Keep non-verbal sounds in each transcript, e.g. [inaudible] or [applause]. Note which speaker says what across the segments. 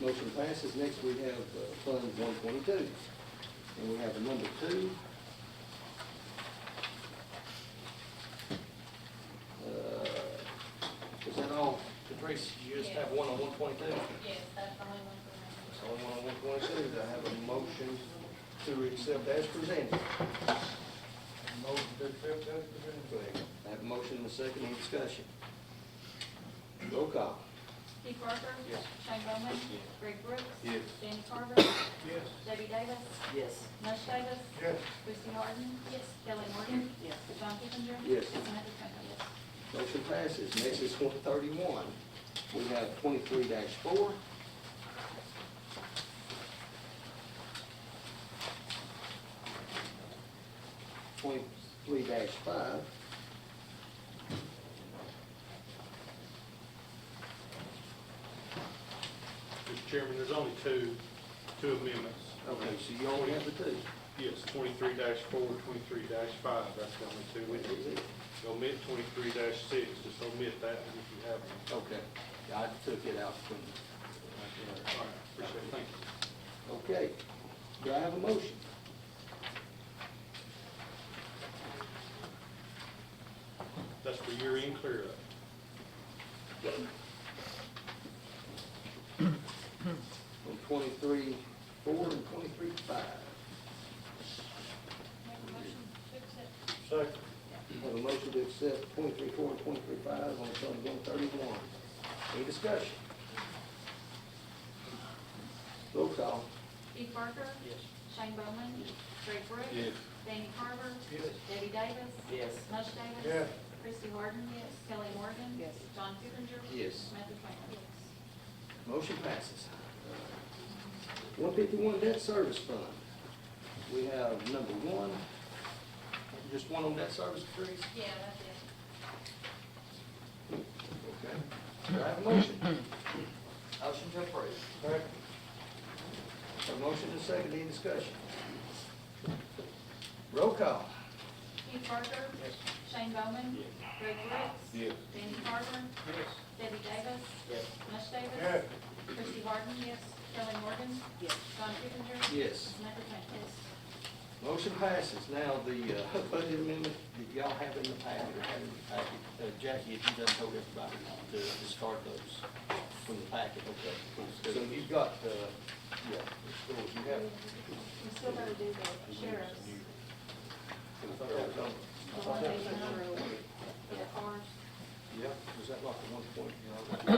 Speaker 1: Motion passes. Next, we have uh, Fund one twenty-two. And we have a number two. Uh, Is that all? Patrice, you just have one on one twenty-two?
Speaker 2: Yes, that's the only one for
Speaker 1: That's only one on one twenty-two. Do I have a motion to accept as presented?
Speaker 3: Motion to accept as presented.
Speaker 1: I have a motion and a second. Any discussion? Roll call.
Speaker 2: me. Keith Parker.
Speaker 1: Yes.
Speaker 2: Shane Bowman. Greg Brooks.
Speaker 1: Yes.
Speaker 2: Danny Carver.
Speaker 3: Yes.
Speaker 2: Debbie Davis.
Speaker 4: Yes.
Speaker 2: mush Davis.
Speaker 3: Yes.
Speaker 2: Christie Harden. Yes. Kelly Morgan.
Speaker 4: Yes.
Speaker 2: John Kipinger.
Speaker 1: Yes.
Speaker 2: Samantha Trent. Yes.
Speaker 1: Motion passes. Next is one thirty-one. We have twenty-three four. Twenty-three five.
Speaker 5: Mr. Chairman, there's only two, two amendments.
Speaker 1: Okay, so you only have the two.
Speaker 5: Yes, twenty-three 4 23 five, that's the only two we need. Omit twenty-three six, just omit that one if you have one.
Speaker 1: Okay, I took it out from,
Speaker 5: All right, appreciate it, thank you.
Speaker 1: okay. Do I have a motion?
Speaker 5: That's for your end clear up.
Speaker 1: On twenty-three four and twenty-three five.
Speaker 2: Make a motion to accept.
Speaker 3: Second.
Speaker 1: Have a motion to accept twenty-three four and twenty-three five on Fund one thirty-one. Any discussion? Roll call.
Speaker 2: Keith Parker.
Speaker 3: Yes.
Speaker 2: Shane Bowman. Greg Brooks.
Speaker 5: Yes.
Speaker 2: Danny Carver.
Speaker 3: Yes.
Speaker 2: Debbie Davis.
Speaker 4: Yes.
Speaker 2: mush Davis.
Speaker 3: Yes.
Speaker 2: Christie Harden. Yes. Kelly Morgan.
Speaker 4: Yes.
Speaker 2: John Kipinger.
Speaker 1: Yes.
Speaker 2: Samantha Trent. Yes.
Speaker 1: Motion passes. One fifty-one debt service fund. We have number one, just one on debt service, please.
Speaker 2: Yeah, that's it.
Speaker 1: Okay. Do I have a motion?
Speaker 4: Motion to approve.
Speaker 3: Second.
Speaker 1: A motion and second, any discussion? Roll call.
Speaker 2: Keith Parker. Shane Bowman. Greg Brooks. Danny Carver.
Speaker 3: Yes.
Speaker 2: Debbie Davis.
Speaker 4: Yes.
Speaker 2: mush Davis.
Speaker 3: Yes.
Speaker 2: Christie Harden, yes. Kelly Morgan,
Speaker 4: Yes.
Speaker 2: John Kipinger.
Speaker 1: Yes.
Speaker 2: Samantha Trent, yes.
Speaker 1: Motion passes. Now, the uh, budget amendment that y'all have in the packet, or have in the packet, uh, Jackie, if you done told everybody to discard those from the packet, okay? So you've got, uh, yeah, so you have.
Speaker 2: We still gotta do the sheriff's, the one they number, the cars.
Speaker 1: Yeah, was that like the one point, you [coughs] know?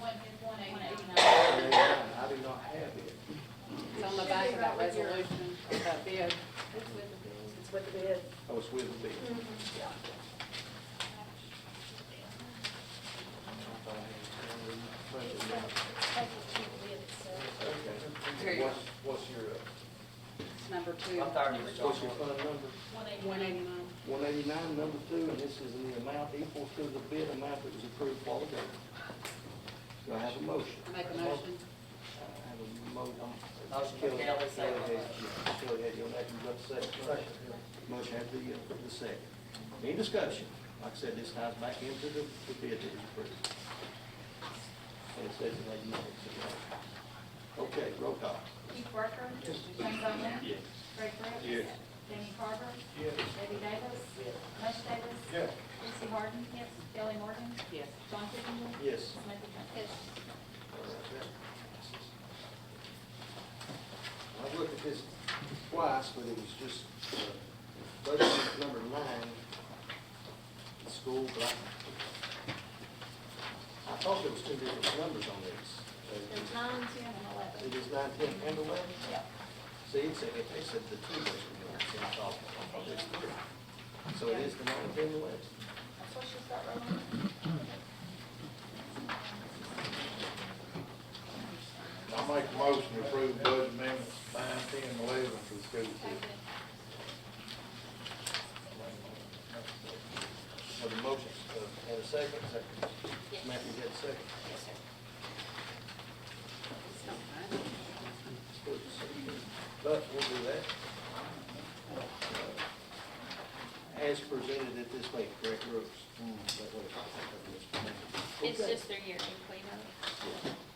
Speaker 2: One, one eighty-nine.
Speaker 1: I do not have it.
Speaker 6: It's on the back of that resolution, of that bid.
Speaker 2: It's with the bills.
Speaker 6: It's with the bid.
Speaker 1: I was Oh, with the bid.
Speaker 2: It's like- it's like the cheap bid, so.
Speaker 6: Here you go.
Speaker 1: What's, what's your, uh,
Speaker 6: It's number two.
Speaker 4: I thought it was John
Speaker 1: what's your fund number?
Speaker 2: One
Speaker 6: One
Speaker 2: eighty-nine.
Speaker 6: eighty-nine.
Speaker 1: One eighty-nine, number two, and this is in the amount equal to the bid amount that was approved while ago. Do I have a motion?
Speaker 6: I Make a motion.
Speaker 1: I have a mo, um.
Speaker 4: Motion by Kelly, second
Speaker 1: Kelly had-
Speaker 4: by-
Speaker 1: yeah, Kelly had your name, you got the second. Motion had the, uh, the second. Any discussion? Like I said, this ties back into the, the bid that was approved. And it says it like you know, so, uh, Okay, roll call.
Speaker 2: Keith Parker. Shane Bowman. Greg Brooks.
Speaker 5: Yes.
Speaker 2: Danny Carver.
Speaker 3: Yes.
Speaker 2: Debbie Davis.
Speaker 4: Yes.
Speaker 2: mush Davis.
Speaker 3: Yes.
Speaker 2: Christie Harden, yes. Kelly Morgan,
Speaker 6: Yes.
Speaker 2: John Kipinger.
Speaker 1: Yes.
Speaker 2: Samantha Trent, yes.
Speaker 1: I've looked at this twice, but it was just, uh, budget number nine, the school, but I, I thought there was two different numbers on this.
Speaker 2: There's nine, ten, and
Speaker 1: It
Speaker 2: eleven.
Speaker 1: is nine, ten, and eleven?
Speaker 2: Yeah.
Speaker 1: See, it said, it said the two was, in the top, on this three. So it is the nine, ten, and eleven.
Speaker 2: That's what she's got rolling.
Speaker 3: I make a motion to approve budget amendments nine, ten, and eleven for the school district.
Speaker 1: Well, the motion, uh, and a second, second, Matthew had a second.
Speaker 2: Yes, sir.
Speaker 1: But we'll do that. As presented at this late, correct, Brooks? That way, I think I can just-
Speaker 2: It's
Speaker 1: Okay.
Speaker 2: just their year end cleanup.
Speaker 1: Yeah.